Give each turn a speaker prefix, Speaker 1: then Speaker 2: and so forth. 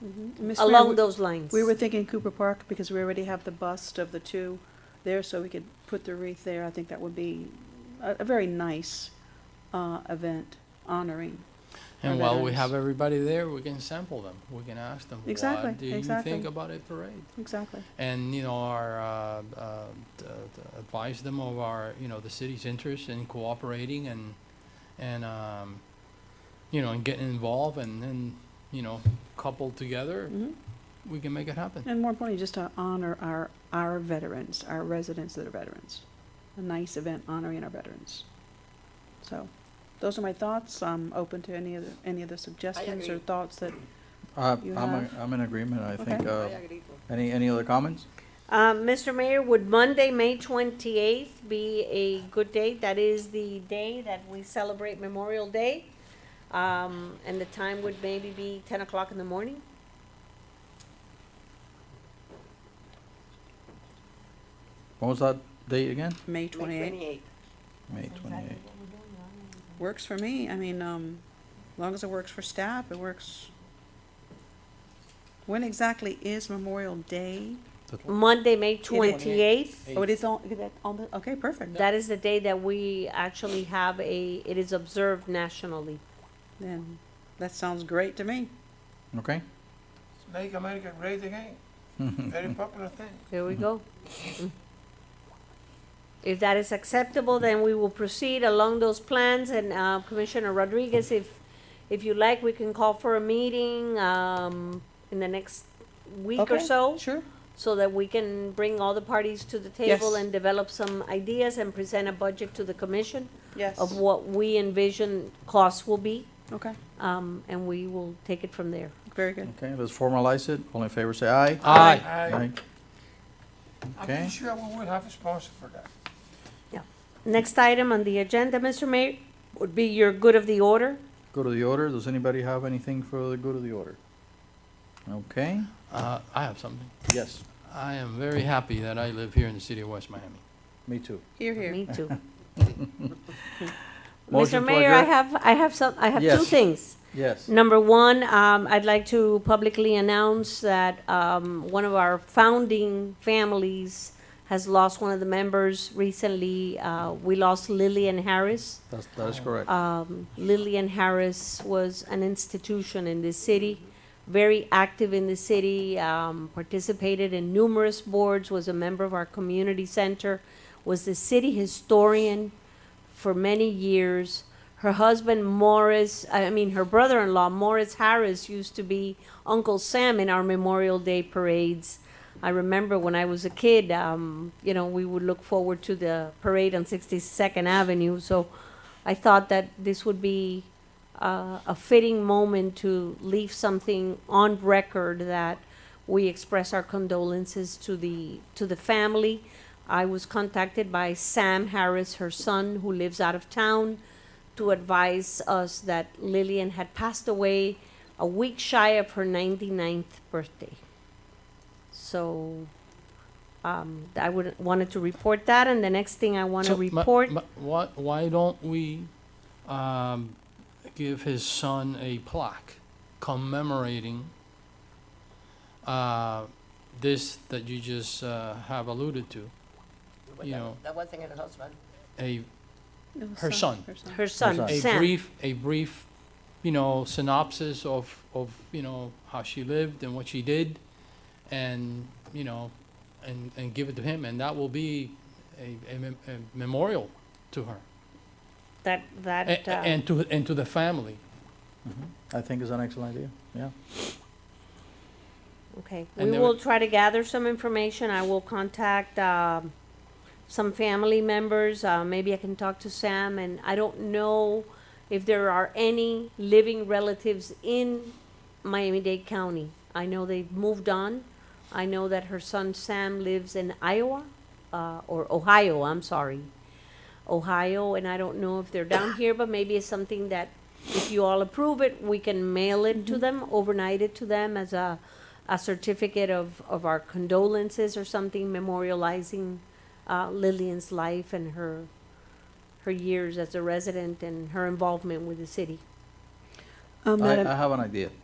Speaker 1: Miss Mayor,
Speaker 2: Mm-hmm. along
Speaker 1: we-
Speaker 2: those lines.
Speaker 1: We were thinking Cooper Park because we already have the bust of the two there, so we could put the wreath there. I think that would be a, a very nice, uh, event honoring.
Speaker 3: And
Speaker 1: Our
Speaker 3: while we
Speaker 1: veterans.
Speaker 3: have everybody there, we can sample them. We can ask them,
Speaker 1: Exactly,
Speaker 3: what do you
Speaker 1: exactly.
Speaker 3: think about a parade?
Speaker 1: Exactly.
Speaker 3: And you know, our uh, uh, d- d- advise them of our you know the city's interest in cooperating and and um, you know and getting involved and then you know coupled together,
Speaker 1: Mhm.
Speaker 3: we can make it happen.
Speaker 1: And more importantly, just to honor our, our veterans, our residents that are veterans. A nice event honoring our veterans. So, those are my thoughts. I'm open to any of the, any of the suggestions or
Speaker 4: agree.
Speaker 1: thoughts that,
Speaker 5: Uh,
Speaker 1: You
Speaker 5: I'm, a-
Speaker 1: have-
Speaker 5: I'm in agreement, I think,
Speaker 1: Okay.
Speaker 5: uh,
Speaker 4: I agree too.
Speaker 5: any, any other comments?
Speaker 2: Uh, Mr. Mayor, would Monday, May twenty-eighth be a good day? That is the day that we celebrate Memorial Day. Um, and the time would maybe be ten o'clock in the morning?
Speaker 5: What was that date again?
Speaker 1: May
Speaker 4: May
Speaker 1: twenty-eighth.
Speaker 4: twenty-eighth.
Speaker 5: May twenty-eighth.
Speaker 1: Works for me. I mean, um, as long as it works for staff, it works. When exactly is Memorial Day?
Speaker 2: Monday, May twenty-eighth,
Speaker 1: Oh, it is on, is that on the, okay, perfect.
Speaker 2: that is the day that we actually have a, it is observed nationally.
Speaker 1: Then, that sounds great to me.
Speaker 5: Okay,
Speaker 6: Make America great again.
Speaker 3: Mm-hmm.
Speaker 6: Very popular thing.
Speaker 2: There we go. If that is acceptable, then we will proceed along those plans, and uh, Commissioner Rodriguez, if, if you like, we can call for a meeting um, in the next week or
Speaker 1: Okay,
Speaker 2: so,
Speaker 1: Sure.
Speaker 2: so that we can bring all the parties to the table
Speaker 1: Yes.
Speaker 2: and develop some ideas and present a budget to the commission
Speaker 1: Yes.
Speaker 2: of what we envision costs will be,
Speaker 1: Okay,
Speaker 2: um, and we will take it from there.
Speaker 1: very good.
Speaker 5: okay, let's formalize it. All in favor, say aye.
Speaker 3: Aye.
Speaker 6: I, I'm
Speaker 5: Okay.
Speaker 6: pretty sure we will have a sponsor for that.
Speaker 2: Next item on the agenda, Mr. Mayor, would be your good of the order.
Speaker 5: Go to the order. Does anybody have anything for the go to the order? Okay,
Speaker 3: Uh, I have something.
Speaker 5: yes,
Speaker 3: I am very happy that I live here in the city of West Miami.
Speaker 5: me too.
Speaker 1: Here, here.
Speaker 2: Me too.
Speaker 5: Motion
Speaker 2: Mr.
Speaker 5: to
Speaker 2: Mayor, I
Speaker 5: adjourn?
Speaker 2: have, I have some, I have two
Speaker 5: Yes.
Speaker 2: things.
Speaker 5: Yes,
Speaker 2: Number one, um, I'd like to publicly announce that, um, one of our founding families has lost one of the members recently. Uh, we lost Lillian Harris.
Speaker 5: that's, that is correct.
Speaker 1: Uh,
Speaker 2: Um, Lillian Harris was an institution in the city, very active in the city, um, participated in numerous boards, was a member of our community center, was the city historian for many years. Her husband Morris, I mean, her brother-in-law Morris Harris used to be Uncle Sam in our Memorial Day parades. I remember when I was a kid, um, you know, we would look forward to the parade on 62nd Avenue. So I thought that this would be uh, a fitting moment to leave something on record that we express our condolences to the to the family. I was contacted by Sam Harris, her son, who lives out of town, to advise us that Lillian had passed away a week shy of her 99th birthday. So um, I would wanted to report that, and the next thing I want to
Speaker 3: So, ma-
Speaker 2: report.
Speaker 3: ma- Why, why don't we, um, give his son a plaque commemorating, uh, this that you just, uh, have alluded to?
Speaker 4: But
Speaker 3: You
Speaker 4: that-
Speaker 3: know.
Speaker 4: That wasn't her husband.
Speaker 3: A,
Speaker 1: It was uh,
Speaker 3: Her son.
Speaker 1: Her son.
Speaker 2: her son,
Speaker 5: son.
Speaker 3: a
Speaker 2: Sam.
Speaker 3: brief, a brief, you know, synopsis of, of, you know, how she lived and what she did, and, you know, and, and give it to him, and that will be a, a mem- a memorial to her,
Speaker 2: That
Speaker 3: a-
Speaker 2: that
Speaker 3: a-
Speaker 2: uh,
Speaker 3: and to, and to the family.
Speaker 5: I think is an excellent idea, yeah.
Speaker 2: okay.
Speaker 3: and
Speaker 2: We
Speaker 3: there
Speaker 2: will
Speaker 3: were-
Speaker 2: try to gather some information. I will contact um, some family members. Uh, maybe I can talk to Sam, and I don't know if there are any living relatives in Miami-Dade County. I know they've moved on. I know that her son Sam lives in Iowa uh, or Ohio. I'm sorry, Ohio, and I don't know if they're down here, but maybe it's something that if you all approve it, we can mail it to them, overnight it to them as a, a certificate of, of our condolences or something memorializing uh, Lillian's life and her, her years as a resident and her involvement with the city.
Speaker 1: Um,
Speaker 5: I,
Speaker 1: Madam-
Speaker 5: I have an idea.